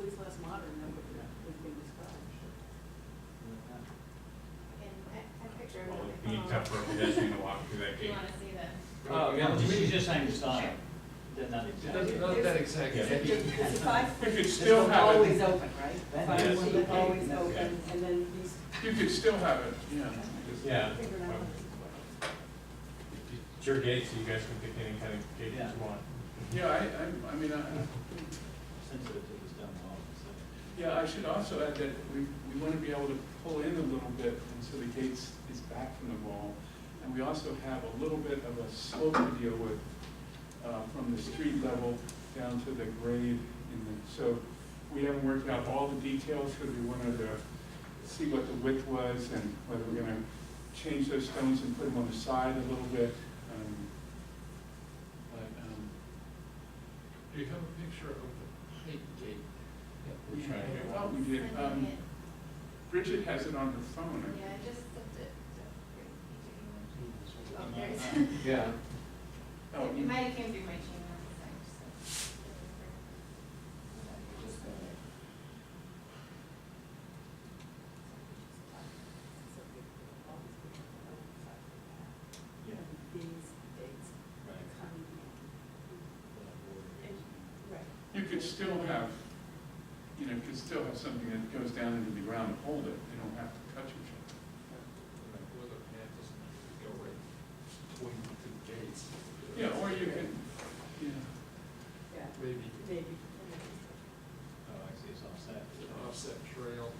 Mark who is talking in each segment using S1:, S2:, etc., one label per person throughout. S1: modern that would, that would be described.
S2: And a picture of
S3: Well,
S2: it.
S3: it'd be tough for a pedestrian to walk through that
S2: Do you
S3: gate.
S2: wanna see that?
S4: Oh, yeah, she's just saying sign,
S2: Sure.
S4: then not exactly.
S5: Not, not that exact.
S3: Yeah.
S1: Because five
S3: You could
S1: feet
S3: still
S1: is
S3: have
S1: always
S3: it,
S1: open, right? Five
S3: Yes.
S1: feet is always
S3: Yeah.
S1: open, and then these
S6: You could still have it, you know, just-
S3: yeah.
S1: figured out.
S3: It's your gate, so you guys can pick any kind of gate
S4: Yeah.
S3: you want.
S6: yeah, I, I, I mean, I,
S4: Sensitive to this down the hall, so.
S6: yeah, I should also add that we, we wanna be able to pull in a little bit, and so the gate is back from the wall. And we also have a little bit of a slope to deal with, uh, from the street level down to the grade in the, so we haven't worked out all the details, because we wanted to see what the width was and whether we're gonna change those stones and put them on the side a little bit, um, but, um,
S5: Do you have a picture of the height gate?
S3: We're trying to get
S6: I
S3: one.
S6: thought we did, um,
S2: Sending it.
S6: Bridget has it on her phone.
S2: Yeah, I just sent it. to- Oh, there it is.
S5: Yeah.
S6: Oh,
S2: It
S6: you-
S2: might have came through my Gmail, so I just. Just uh, go there.
S4: Yeah.
S1: These dates
S4: Right.
S1: coming in. Right.
S6: you could still have, you know, you could still have something that goes down into the ground and hold it, they don't have to touch each other.
S5: Where the path is, you go right between the two gates.
S6: Yeah, or you could, yeah,
S1: Yeah,
S5: Maybe
S1: maybe.
S4: Oh, I see, it's offset.
S5: an offset trail,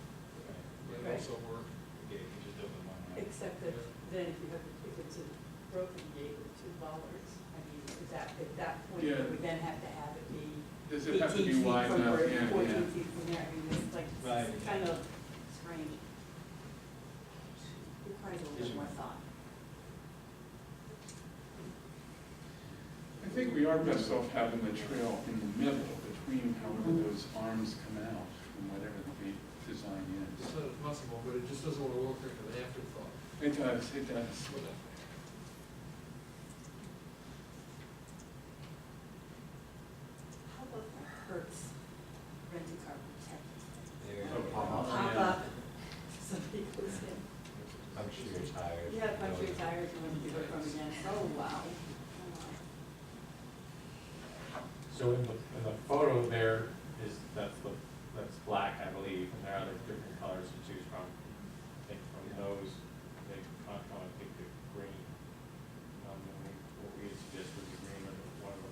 S5: might
S1: Right.
S5: also work.
S4: Okay, you just open one, right?
S1: Except that then if you have, if it's a broken gate with two bollards, I mean, is that, at that point, you
S6: Yeah.
S1: would then have to have it be
S6: does it
S1: eighteen
S6: have to be
S1: feet
S6: wide
S1: from
S6: enough?
S1: where,
S6: Yeah, yeah.
S1: fourteen feet from there, I mean, it's like,
S4: Right.
S1: it's kind of strange. Requires a little more thought.
S6: I think we are best off having the trail in the middle between however those arms come out from whatever the design
S5: It's not impossible, but it just doesn't want to look like an afterthought.
S6: is. It does, it does.
S5: Well,
S1: How about the Hertz renting car protector?
S7: There you
S6: Oh,
S7: go.
S6: wow.
S1: Pop
S6: yeah.
S1: up, somebody goes in,
S7: I'm sure you're tired.
S1: you have a bunch
S7: No,
S1: of tires you want to do it from again, oh, wow.
S3: So in the, in the photo there is, that's the, that's black, I believe, and there are other different colors to choose from. I think from those, they Concom, I think the green. Um, and we, what we had suggested was the green or the- one of the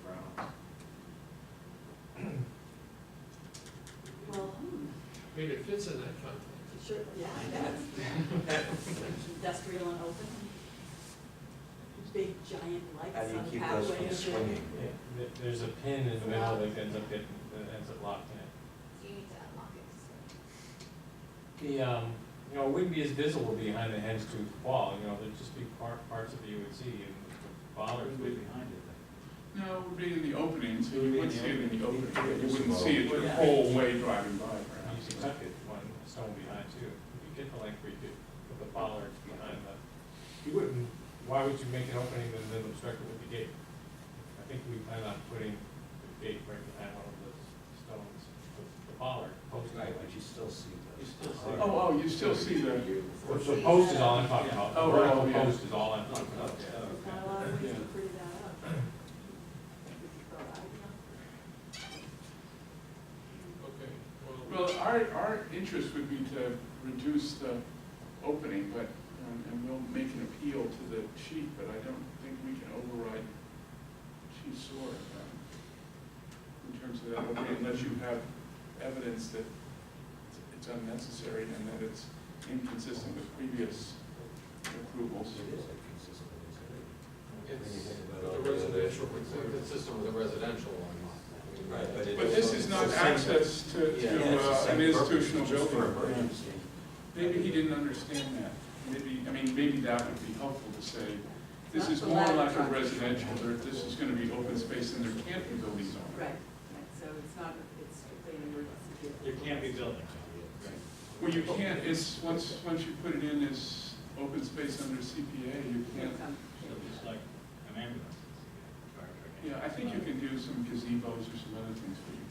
S3: browns.
S1: Well, hmm,
S5: I mean, it fits in that context.
S1: sure, yeah, I know. Industrial and open. Big giant
S7: How
S1: lights
S7: do you
S1: on the
S7: keep those
S1: pathway.
S7: from swinging?
S3: Yeah, th- There's a pin in the middle that ends up getting, that ends up locking it.
S2: You need to unlock it. so-
S3: The, um, you know, it wouldn't be as visible behind the hen's tooth wall, you know, there'd just be par- parts of it you would see and the bollards
S4: Way
S3: would be.
S4: behind it,
S6: No, it would be in the opening, so
S3: It
S6: you
S3: would be
S6: would
S3: in the
S6: see it in the opening,
S7: opening.
S6: but you wouldn't see it the
S4: Yeah.
S6: whole way driving by,
S3: You
S6: perhaps.
S3: could tuck it one stone behind too. You get the length where you could put the bollard behind the, you wouldn't, why would you make an opening and then obstruct it with the gate? I think we plan on putting the gate right behind one of those stones, the- the bollard post.
S7: Right, but you still see those.
S4: You still see
S6: Oh, oh, you still see the,
S3: The- The post is all I'm talking about, the
S6: Oh, right,
S3: vertical
S6: yeah.
S3: post is all I'm talking about.
S1: There's not a lot of ways to
S6: Yeah.
S1: prove that up. Would you go, I
S5: Okay, well,
S6: Well, our, our interest would be to reduce the opening, but, um, and we'll make an appeal to the chief, but I don't think we can override Chief Sore um, in terms of that opening, unless you have evidence that it's- it's unnecessary and that it's inconsistent with previous approvals.
S7: It is inconsistent, isn't it? When you
S5: it's,
S7: think about all
S5: the
S7: the other-
S5: residential, it's consistent with the residential one.
S7: Right, but it
S6: But this
S7: also-
S6: is not
S7: it's the same-
S6: access to,
S7: Yeah,
S6: to
S7: it's the
S6: uh,
S7: same
S6: an
S7: purpose,
S6: institutional
S7: it's just for
S6: building.
S7: emergency.
S6: Maybe he didn't understand that. Maybe, I mean, maybe that would be helpful to say, this
S1: Not
S6: is
S1: the
S6: more
S1: ladder
S6: like a
S1: truck.
S6: residential, or this is gonna be open space and there can't be buildings
S1: don't
S6: on
S1: know.
S6: it.
S1: Right, right, so it's not, it's strictly an emergency.
S4: There can't be buildings.
S6: Well, you can't, it's, once, once you put it in as open space under CPA, you
S1: You
S6: can't,
S1: come-
S4: So just like an ambulance, it's a fire truck.
S6: yeah, I think you can do some gazebos or some other things, but you